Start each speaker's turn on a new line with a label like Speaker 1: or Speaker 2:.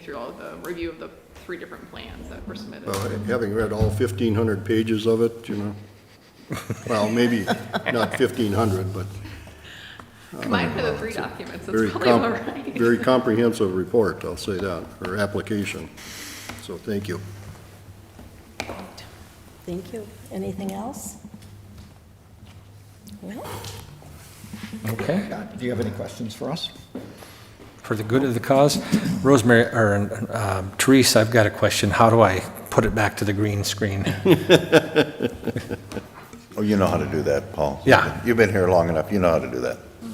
Speaker 1: through all the review of the three different plans that were submitted.
Speaker 2: Well, Uh, Having read all 1,500 pages of it, you know, well, maybe not 1,500, but
Speaker 1: Combined for the three documents,
Speaker 2: very,
Speaker 1: it's probably all
Speaker 2: comp-
Speaker 1: right.
Speaker 2: very comprehensive report, I'll say that, or application. So thank you.
Speaker 3: Thank you. Anything else? Well,
Speaker 4: Okay,
Speaker 5: Scott, do you have any questions for us?
Speaker 4: for the good of the cause. Rosemary, or um, Therese, I've got a question. How do I put it back to the green screen?
Speaker 6: Oh, you know how to do that, Paul.
Speaker 4: Yeah.
Speaker 6: You've been here long enough, you know how to do that.